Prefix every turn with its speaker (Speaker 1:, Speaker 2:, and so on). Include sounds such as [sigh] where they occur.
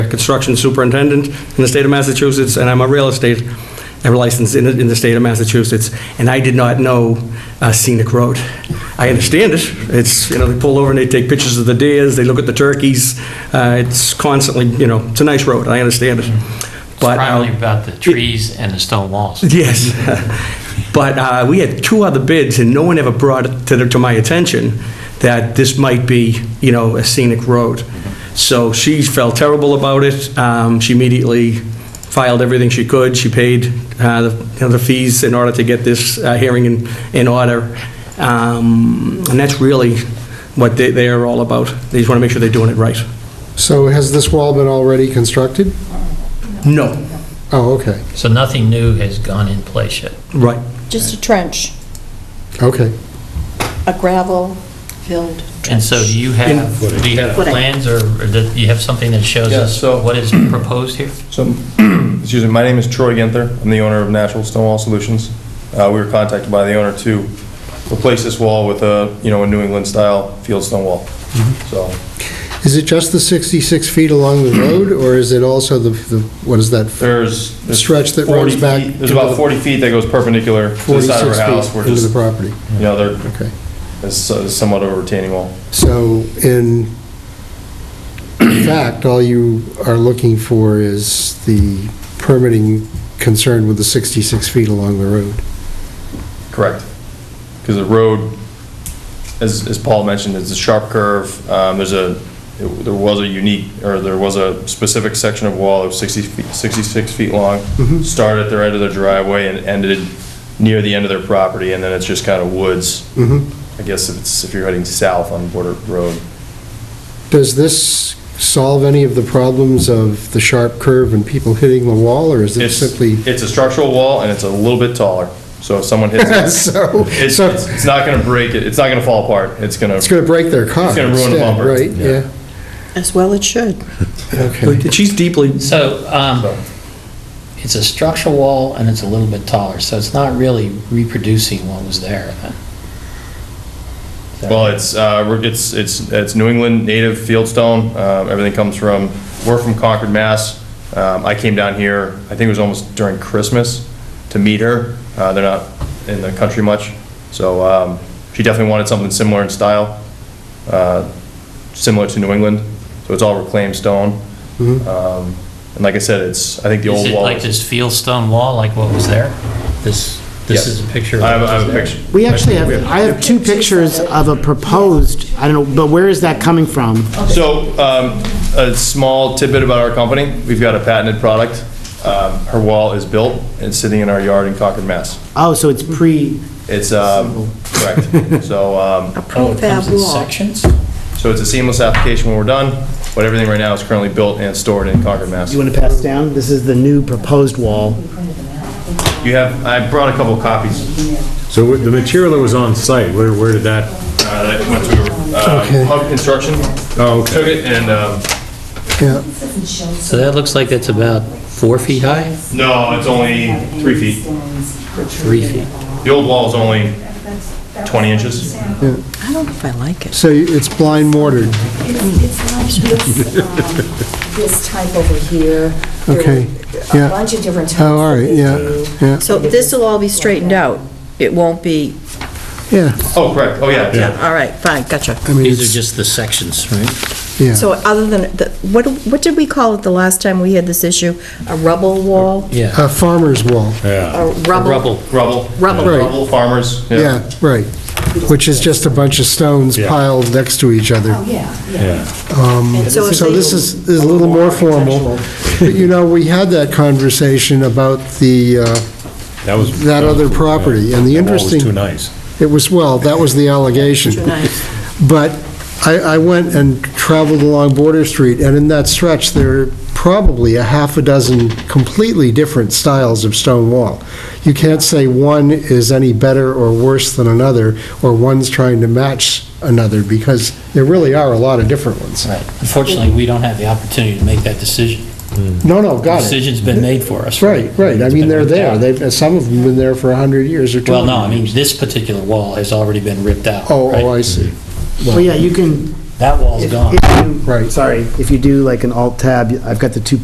Speaker 1: construction superintendent in the state of Massachusetts, and I'm a real estate licensed in, in the state of Massachusetts, and I did not know uh, scenic road. I understand it, it's, you know, they pull over and they take pictures of the deers, they look at the turkeys, uh, it's constantly, you know, it's a nice road, I understand it. But, uh,
Speaker 2: Primarily about the trees and the stone walls.
Speaker 1: Yes. [laughs] But uh, we had two other bids, and no one ever brought it to the- to my attention that this might be, you know, a scenic road. So she felt terrible about it. Um, She immediately filed everything she could. She paid uh, the you know, the fees in order to get this uh, hearing in in order. Um, And that's really what they they are all about. They just want to make sure they're doing it right.
Speaker 3: So has this wall been already constructed?
Speaker 1: No,
Speaker 3: Oh, okay,
Speaker 2: So nothing new has gone in place yet.
Speaker 1: right.
Speaker 4: Just a trench,
Speaker 3: okay.
Speaker 4: a gravel-filled
Speaker 2: And
Speaker 4: trench.
Speaker 2: so do you have, do you have
Speaker 4: Footing.
Speaker 2: plans or or do you have something that shows
Speaker 5: Yeah,
Speaker 2: us
Speaker 5: so-
Speaker 2: what is proposed here?
Speaker 5: So, [clears throat] excuse me, my name is Troy Ginther. I'm the owner of Natural Stonewall Solutions. Uh, We were contacted by the owner to replace this wall with a, you know, a New England-style field stone wall.
Speaker 3: Mm-hmm.
Speaker 5: So,
Speaker 3: Is it just the 66 feet along the road, or is it also the, the what is that?
Speaker 5: there's... there's
Speaker 3: Stretch that runs
Speaker 5: 40
Speaker 3: back
Speaker 5: feet- There's
Speaker 3: to
Speaker 5: about
Speaker 3: the-
Speaker 5: 40 feet that goes perpendicular to the
Speaker 3: 46
Speaker 5: side of our house.
Speaker 3: feet
Speaker 5: We're
Speaker 3: into the
Speaker 5: just,
Speaker 3: property?
Speaker 5: you know, there
Speaker 3: Okay.
Speaker 5: is somewhat of a retaining wall.
Speaker 3: So in fact, all you are looking for is the permitting concerned with the 66 feet along the road.
Speaker 5: Correct. Because the road, as, as Paul mentioned, it's a sharp curve. Um, There's a, there was a unique, or there was a specific section of wall of 60 feet, 66 feet long.
Speaker 3: Mhm.
Speaker 5: Started at the right of their driveway and ended near the end of their property, and then it's just kind of woods.
Speaker 3: Mhm.
Speaker 5: I guess if it's, if you're heading south on Border Road.
Speaker 3: Does this solve any of the problems of the sharp curve and people hitting the wall, or is it
Speaker 5: It's,
Speaker 3: simply?
Speaker 5: it's a structural wall and it's a little bit taller, so if someone hits
Speaker 3: [laughs]
Speaker 5: it,
Speaker 3: So,
Speaker 5: it's,
Speaker 3: so
Speaker 5: it's it's not gonna break it, it's not gonna fall apart, it's gonna.
Speaker 3: it's going to break their car.
Speaker 5: It's gonna ruin the
Speaker 3: instead,
Speaker 5: bumper.
Speaker 3: Right,
Speaker 5: Yeah.
Speaker 3: yeah.
Speaker 4: As well it should.
Speaker 3: Okay.
Speaker 1: But She's deeply,
Speaker 6: So, um, it's a structural wall and it's a little bit taller, so it's not really reproducing what was there then. Is that
Speaker 5: Well,
Speaker 6: right?
Speaker 5: it's, uh, we're- it's, it's, it's New England native fieldstone. Um, everything comes from, we're from Concord, Mass. Um, I came down here, I think it was almost during Christmas to meet her. Uh, they're not in the country much. So, um, she definitely wanted something similar in style, uh, similar to New England. So it's all reclaimed stone. Um, and like I said, it's, I think the
Speaker 2: Is
Speaker 5: old
Speaker 2: it
Speaker 5: wall.
Speaker 2: like
Speaker 5: is-
Speaker 2: this field stone wall, like what was there? This,
Speaker 5: Yes.
Speaker 2: this is a picture of
Speaker 5: I have,
Speaker 2: what
Speaker 5: I
Speaker 2: was
Speaker 5: have a
Speaker 2: there?
Speaker 5: picture.
Speaker 7: We actually have, I have two pictures of a proposed, I don't know, but where is that coming from?
Speaker 5: So, um, a small tidbit about our company, we've got a patented product. Um, Her wall is built and sitting in our yard in Concord, Mass.
Speaker 7: Oh, so it's pre,
Speaker 5: It's, um, correct. So, um,
Speaker 6: Oh, it comes
Speaker 4: Prefab
Speaker 6: in
Speaker 4: wall.
Speaker 6: sections?
Speaker 5: so it's a seamless application when we're done, but everything right now is currently built and stored in Concord, Mass.
Speaker 7: you want to pass down? This is the new proposed wall.
Speaker 5: You have, I brought a couple copies
Speaker 8: So what- the material that was on site, where, where did that,
Speaker 5: uh, that went to uh,
Speaker 3: Okay.
Speaker 5: Hub Construction,
Speaker 8: oh, okay.
Speaker 5: took it and, um,
Speaker 3: Yeah,
Speaker 2: So that looks like it's about four feet high?
Speaker 5: no, it's only three feet.
Speaker 2: Three feet.
Speaker 5: The old wall is only 20 inches.
Speaker 4: I don't know if I like it.
Speaker 3: so it's blind mortared.
Speaker 9: It's it's like this, um, this type over here. There are
Speaker 3: Okay, yeah.
Speaker 9: A bunch of different types.
Speaker 3: Oh, all
Speaker 9: that
Speaker 3: right,
Speaker 9: they
Speaker 3: yeah,
Speaker 9: do.
Speaker 3: yeah,
Speaker 4: So this will all be straightened out? It won't be,
Speaker 3: yeah.
Speaker 5: Oh, correct, oh, yeah.
Speaker 4: yeah, all right, fine, gotcha.
Speaker 3: I mean,
Speaker 6: These are
Speaker 3: it's,
Speaker 6: just the sections, right?
Speaker 3: yeah.
Speaker 4: So other than, the- what, what did we call it the last time we had this issue? A rubble wall?
Speaker 6: Yeah.
Speaker 3: A farmer's wall,
Speaker 4: A rubble?
Speaker 6: Rubble.
Speaker 5: Rubble.
Speaker 4: Rubble.
Speaker 3: Right.
Speaker 5: Rubble farmers.
Speaker 3: yeah, right, which is just a bunch of stones
Speaker 8: Yeah.
Speaker 3: piled next to each other.
Speaker 9: Oh, yeah, yeah. And
Speaker 4: So it's
Speaker 3: So this is, is a little more formal. But you know, we had that conversation about the, uh,
Speaker 8: That was.
Speaker 3: That other
Speaker 8: was-
Speaker 3: property, and the
Speaker 8: That wall was
Speaker 3: interesting-
Speaker 8: too nice.
Speaker 3: It was, well, that was the allegation. But I, I went and traveled along Border Street, and in that stretch, there are probably a half a dozen completely different styles of stone wall. You can't say one is any better or worse than another, or one's trying to match another, because there really are a lot of different ones.
Speaker 6: Right. Unfortunately, we don't have the opportunity to make that decision.
Speaker 3: No, no,
Speaker 6: The
Speaker 3: got it.
Speaker 6: Decision's been made for us.
Speaker 3: Right, right. I
Speaker 6: It's
Speaker 3: mean,
Speaker 6: been
Speaker 3: they're
Speaker 6: ripped
Speaker 3: there.
Speaker 6: out.
Speaker 3: They've, some of them have been there for 100 years or 200
Speaker 6: Well, no, I mean,
Speaker 3: years.
Speaker 6: this particular wall has already been ripped out.
Speaker 3: Oh,
Speaker 6: right?
Speaker 3: oh, I see.
Speaker 7: Well, yeah, you can,
Speaker 6: That wall's gone.
Speaker 7: If you-
Speaker 3: Right.
Speaker 7: Sorry, if you do like an alt tab, I've got the two